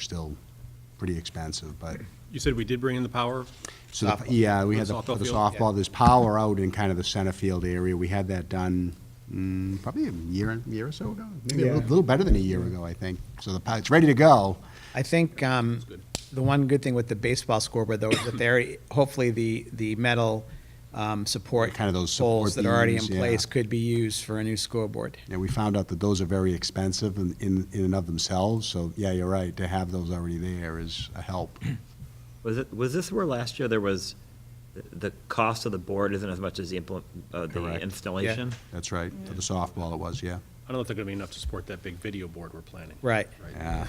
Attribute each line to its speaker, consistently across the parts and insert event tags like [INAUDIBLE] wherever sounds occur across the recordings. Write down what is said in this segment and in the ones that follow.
Speaker 1: still pretty expensive, but,
Speaker 2: You said we did bring in the power?
Speaker 1: so, the- yeah, we had the
Speaker 2: Softball
Speaker 1: for the
Speaker 2: field, yeah.
Speaker 1: softball, there's power out in kind of the center field area. We had that done mm, probably a year, and- year or so ago, maybe a little-
Speaker 3: Yeah.
Speaker 1: little better than a year ago, I think. So the, pow- it's ready to go.
Speaker 3: I think um, the one good thing with the baseball scoreboard, though, is that they're, hopefully the, the metal um, support.
Speaker 1: Kind of those support
Speaker 3: Poles that are already in
Speaker 1: beams, yeah.
Speaker 3: place could be used for a new scoreboard.
Speaker 1: And we found out that those are very expensive in, in in and of themselves, so, yeah, you're right, to have those already there is a help.
Speaker 4: Was it, was this where last year there was, the- the cost of the board isn't as much as the implement, uh, the
Speaker 1: Correct.
Speaker 4: installation?
Speaker 1: That's right, for the softball it was, yeah.
Speaker 2: I don't know if they're going to be enough to support that big video board we're planning.
Speaker 3: Right.
Speaker 1: Yeah.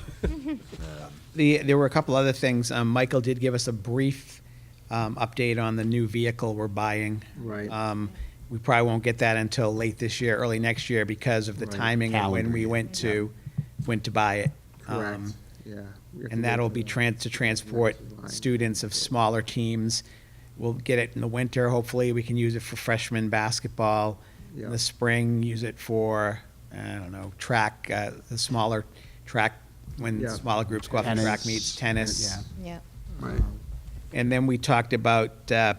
Speaker 3: The, there were a couple other things. Um, Michael did give us a brief um, update on the new vehicle we're buying.
Speaker 5: Right.
Speaker 3: Um, We probably won't get that until late this year, early next year, because of the
Speaker 5: Right.
Speaker 3: timing of when
Speaker 1: Calendar
Speaker 3: we
Speaker 1: year,
Speaker 3: went to, went to buy it.
Speaker 5: Correct,
Speaker 3: Um,
Speaker 5: yeah. We have to
Speaker 3: And
Speaker 5: go
Speaker 3: that'll
Speaker 5: to
Speaker 3: be
Speaker 5: the-
Speaker 3: tran, to transport
Speaker 5: Line.
Speaker 3: students of smaller teams. We'll get it in the winter, hopefully, we can use it for freshman basketball. In
Speaker 5: Yeah.
Speaker 3: the spring, use it for, I don't know, track, uh, the smaller track, when
Speaker 5: Yeah.
Speaker 3: smaller groups go off to track
Speaker 1: Tennis.
Speaker 3: meets, tennis.
Speaker 1: Yeah.
Speaker 6: Yeah.
Speaker 5: Right.
Speaker 3: And then we talked about uh,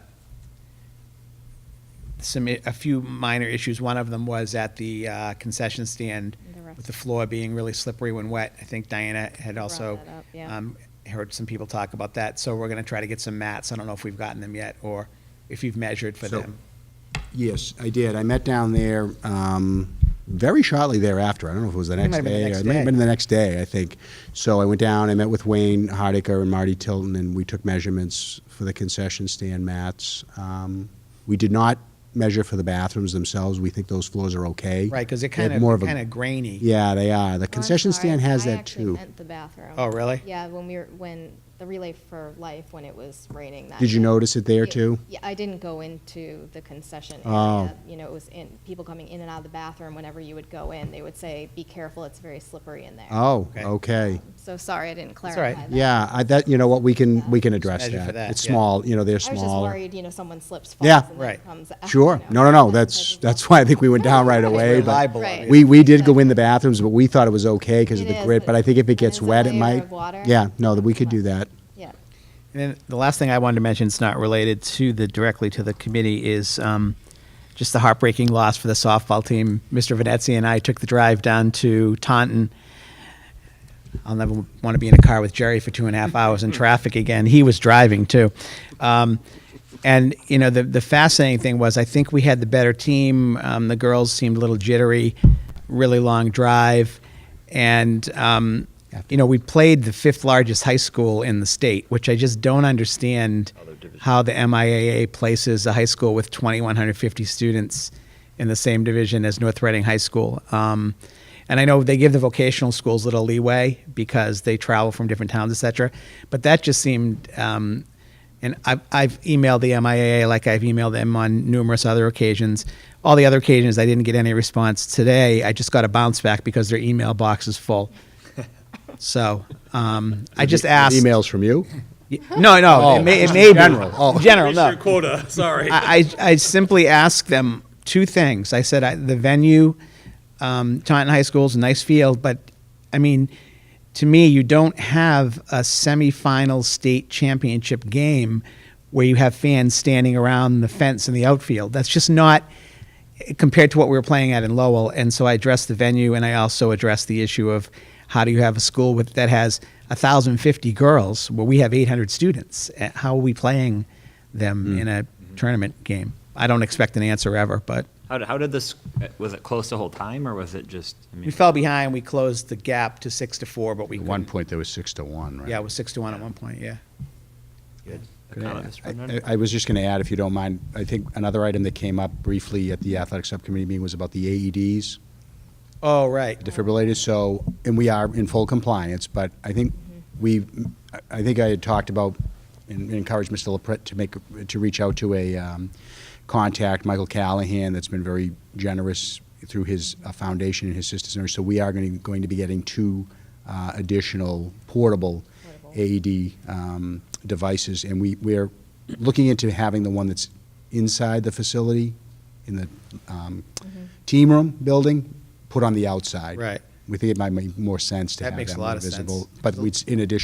Speaker 3: some, a few minor issues. One of them was at the uh, concession stand
Speaker 6: The rest-
Speaker 3: with the floor being really slippery when wet. I think Diana had also
Speaker 6: that up, yeah.
Speaker 3: um, heard some people talk about that. So we're going to try to get some mats. I don't know if we've gotten them yet or if you've measured for
Speaker 1: So-
Speaker 3: them.
Speaker 1: Yes, I did. I met down there um, very shortly thereafter. I don't know if it was the
Speaker 3: It
Speaker 1: next
Speaker 3: might have been the
Speaker 1: day. or
Speaker 3: next
Speaker 1: It may have
Speaker 3: day.
Speaker 1: been the next day, I think. So I went down, I met with Wayne Hardiker and Marty Tilton, and we took measurements for the concession stand mats. Um, We did not measure for the bathrooms themselves. We think those floors are okay.
Speaker 3: Right, because they're
Speaker 1: They have
Speaker 3: kind of,
Speaker 1: more a-
Speaker 3: kind of grainy.
Speaker 1: Yeah, they are. The
Speaker 6: Oh, I'm
Speaker 1: concession
Speaker 6: sorry.
Speaker 1: stand has
Speaker 6: I
Speaker 1: that
Speaker 6: actually
Speaker 1: too.
Speaker 6: meant the bathroom.
Speaker 3: Oh, really?
Speaker 6: Yeah, when we were, when the Relay for Life, when it was raining that.
Speaker 1: Did you
Speaker 6: day.
Speaker 1: notice it there
Speaker 6: It-
Speaker 1: too?
Speaker 6: Yeah, I didn't go into the concession
Speaker 1: Oh.
Speaker 6: area. You know, it was in, people coming in and out of the bathroom, whenever you would go in, they would say, be careful, it's very slippery in there.
Speaker 1: Oh,
Speaker 3: Okay.
Speaker 1: okay.
Speaker 6: So sorry, I didn't
Speaker 3: all
Speaker 6: clarify
Speaker 3: right.
Speaker 6: that.
Speaker 1: Yeah, I, that, you know what, we can, we can
Speaker 3: Just
Speaker 1: address
Speaker 3: measure for
Speaker 1: that.
Speaker 3: that,
Speaker 1: It's
Speaker 3: yeah.
Speaker 1: small, you know, they're
Speaker 6: I was just
Speaker 1: smaller.
Speaker 6: worried, you know, someone slips, falls,
Speaker 1: Yeah.
Speaker 6: and then
Speaker 3: Right.
Speaker 6: it comes out.
Speaker 1: Sure.
Speaker 6: you
Speaker 1: No,
Speaker 6: know,
Speaker 1: no,
Speaker 6: [LAUGHS]
Speaker 1: no.
Speaker 6: that
Speaker 1: That's,
Speaker 6: type
Speaker 1: [LAUGHS]
Speaker 6: of-
Speaker 1: that's why I think we went down right away.
Speaker 3: We're
Speaker 1: but-
Speaker 3: liable on
Speaker 6: Right.
Speaker 3: it.
Speaker 1: We, we did go in the bathrooms, but we thought it was okay because of
Speaker 6: It
Speaker 1: the
Speaker 6: is,
Speaker 1: grid,
Speaker 6: but
Speaker 1: but I think if it gets
Speaker 6: it's a
Speaker 1: wet, it
Speaker 6: layer
Speaker 1: might.
Speaker 6: of water.
Speaker 1: Yeah, no, that we could do that.
Speaker 6: Yeah.
Speaker 3: And then the last thing I wanted to mention, it's not related to the, directly to the committee, is um, just the heartbreaking loss for the softball team. Mr. Venezzi and I took the drive down to Taunton. I'll never want to be in a car with Jerry for two and a half hours in traffic again. He was driving too. Um, and, you know, the, the fascinating thing was I think we had the better team. Um, the girls seemed a little jittery, really long drive. And, um, you know, we played the fifth largest high school in the state, which I just don't understand how the MIAA places a high school with 2,150 students in the same division as North Reading High School. Um, and I know they give the vocational schools little leeway because they travel from different towns, et cetera. But that just seemed, um, and I've, I've emailed the MIAA like I've emailed them on numerous other occasions. All the other occasions I didn't get any response. Today I just got a bounce back because their email box is full. So um, I just asked.
Speaker 1: Emails from you?
Speaker 3: No, no, it may, it may be Oh. general. general, no.
Speaker 2: Reached your quota, sorry.
Speaker 3: I, I, I simply asked them two things. I said, I, the venue, um, Taunton High School is a nice field, but I mean, to me, you don't have a semifinal state championship game where you have fans standing around the fence in the outfield. That's just not compared to what we were playing at in Lowell. And so I addressed the venue and I also addressed the issue of how do you have a school with, that has 1,050 girls where we have 800 students? Uh, How are we playing them
Speaker 1: Hmm.
Speaker 3: in a tournament game? I don't expect an answer ever, but
Speaker 4: How, did- how did this, was it close the whole time, or was it just? I mean,
Speaker 3: we fell behind. We closed the gap to six to four, but we
Speaker 1: At one
Speaker 3: couldn't-
Speaker 1: point, there was six to one, right?
Speaker 3: Yeah, it was six to one at one point. Yeah.
Speaker 4: economist,
Speaker 1: I-
Speaker 4: Brendan?
Speaker 1: I was just going to add, if you don't mind, I think another item that came up briefly at the athletic subcommittee meeting was about the E AEDs.
Speaker 3: Oh, right.
Speaker 1: defibrillators, so, and we are in full compliance, but I think we, I- I think I had talked about and encouraged Mr. LaPret to make, to reach out to a um, contact, Michael Callahan, that's been very generous through his uh, foundation and his sister center, so we are going to, going to be getting two uh, additional portable
Speaker 6: Portable.
Speaker 1: AED um, devices, and we, we're looking into having the one that's inside the facility, in the um, team room building, put on the outside.
Speaker 3: Right.
Speaker 1: We think it might make more sense to
Speaker 3: That
Speaker 1: have
Speaker 3: makes
Speaker 1: that
Speaker 3: a
Speaker 1: more
Speaker 3: lot of sense.
Speaker 1: visible. But we, in addition